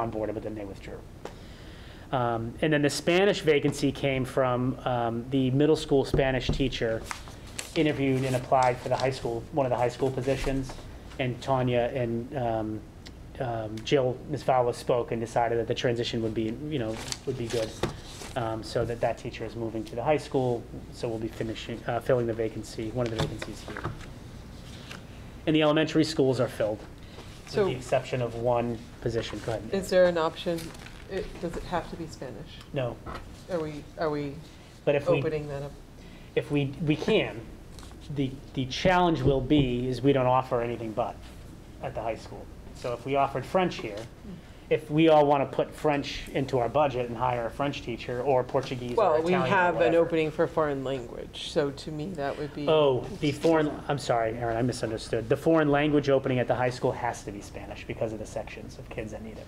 on board, but then they withdrew. Um, And then the Spanish vacancy came from um, the middle school Spanish teacher interviewed and applied for the high school, one of the high school positions. And Tanya and um, um, Jill Misfawa spoke and decided that the transition would be, you know, would be good. Um, So that that teacher is moving to the high school, so we'll be finishing, uh, filling the vacancy, one of the vacancies here. And the elementary schools are filled, with So- the exception of one position. Go ahead. Nick. Is there an option, it, does it have to be Spanish? No, Are we, are we but if we, opening that up? if we, we can, the, the challenge will be is we don't offer anything but at the high school. So if we offered French here, if we all want to put French into our budget and hire a French teacher or Portuguese or Well, we Italian or have an whatever. opening for foreign language, so to me, that would be. Oh, the foreign, I'm sorry, Aaron, I misunderstood. The foreign language opening at the high school has to be Spanish because of the sections of kids that need it.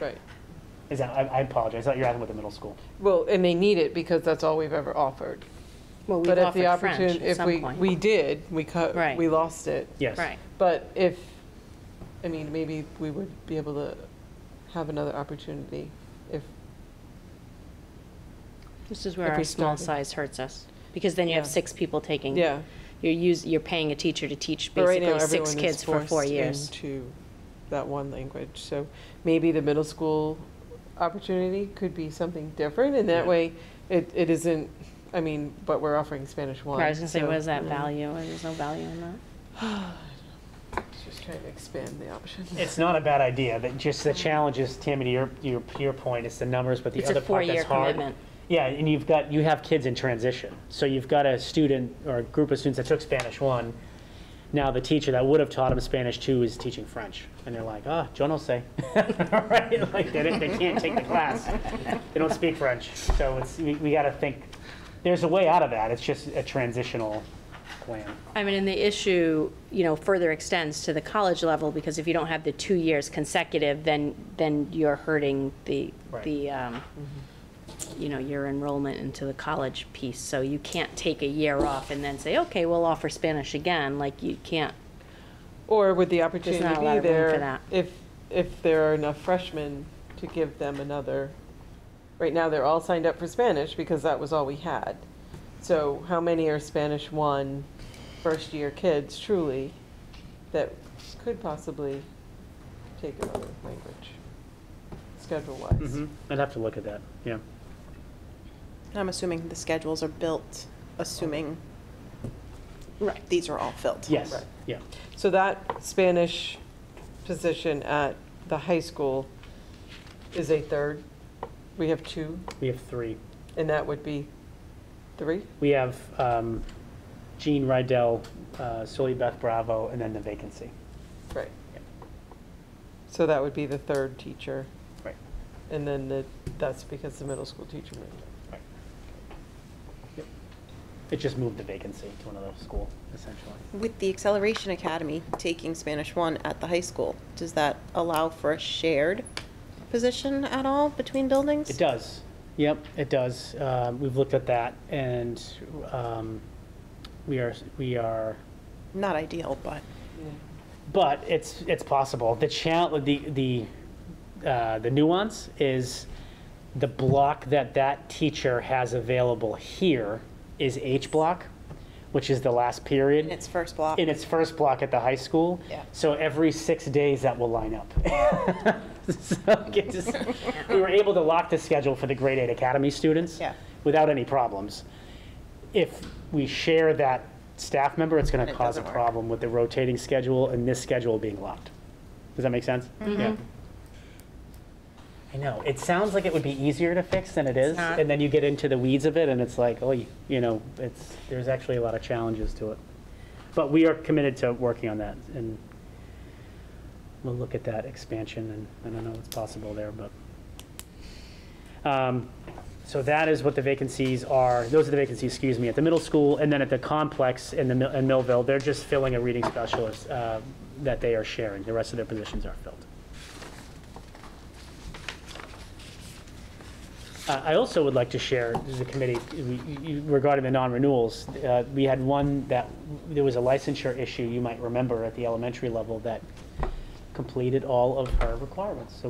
Right. Is that, I I apologize, I thought you were asking about the middle school. Well, and they need it because that's all we've ever offered. Well, we've But if the offered French opportunity, at if some we, we point. did, we cut, Right. we lost it. Yes. Right. But if, I mean, maybe we would be able to have another opportunity if, This is where If we our small started. size hurts us, because then you have Yeah. six people taking. yeah. You're use, you're paying a teacher to teach But right now, basically six everyone is kids for four forced years. Into that one language, so maybe the middle school opportunity could be something different, and that Yeah. way, it, it isn't, I mean, but we're offering Spanish one. Right, I was gonna say, so, what is that mm, value? There's no value in that. Just trying to expand the options. It's not a bad idea, but just the challenge is, Tammy, to your, your, your point, it's the numbers, but the It's a other part four-year that's hard. commitment. Yeah, and you've got, you have kids in transition. So you've got a student or a group of students that took Spanish one. Now the teacher that would have taught them Spanish two is teaching French. And they're like, ah, yo no sé. Right? Like, they, didn't- they can't take the class. They don't speak French. So it's, we, we gotta think, there's a way out of that. It's just a transitional plan. I mean, and the issue, you know, further extends to the college level, because if you don't have the two years consecutive, then, then you're hurting the, Right. the, um, you know, your enrollment into the college piece. So you can't take a year off and then say, okay, we'll offer Spanish again, like you can't. Or would the opportunity not a lot be of room for there that. if, if there are enough freshmen to give them another? Right now, they're all signed up for Spanish because that was all we had. So how many are Spanish one, first-year kids truly that could possibly take another language, schedule-wise? I'd have to look at that, yeah. I'm assuming the schedules are built, assuming Right. these are all filled. Yes, Right. yeah. So that Spanish position at the high school is a third? We have two? We have three. And that would be three? We have um, Jean Rydell, uh, Sully Beth Bravo, and then the vacancy. Right. So that would be the third teacher, Right. and then the, that's because the middle school teacher moved. It just moved the vacancy to another school, essentially. With the Acceleration Academy taking Spanish one at the high school, does that allow for a shared position at all between buildings? It does. Yep, it does. Um, We've looked at that, and um, we are, we are, Not ideal, but but it's, it's possible. The challenge, the, the, uh, the nuance is the block that that teacher has available here is H block, which is the last period. in its first block. in its first block at the high school. Yeah. So every six days, that will line up. So it just- We were able to lock the schedule for the grade eight academy students Yeah. without any problems. If we share that staff member, it's going to It cause a doesn't work. problem with the rotating schedule and this schedule being locked. Does that make sense? Yeah. I know, it sounds like it would be easier to fix than it is, not. and then you get into the weeds of it, and it's like, oh, you you know, it's, there's actually a lot of challenges to it. But we are committed to working on that, and we'll look at that expansion, and I don't know what's possible there, but. Um, So that is what the vacancies are, those are the vacancies, excuse me, at the middle school, and then at the complex in the, Mil- in Millville, they're just filling a reading specialist uh, that they are sharing, the rest of their positions are filled. Uh, I also would like to share, the committee, we- you- regarding the non-renewals, uh, we had one that, there was a licensure issue, you might remember, at the elementary level that completed all of her requirements. So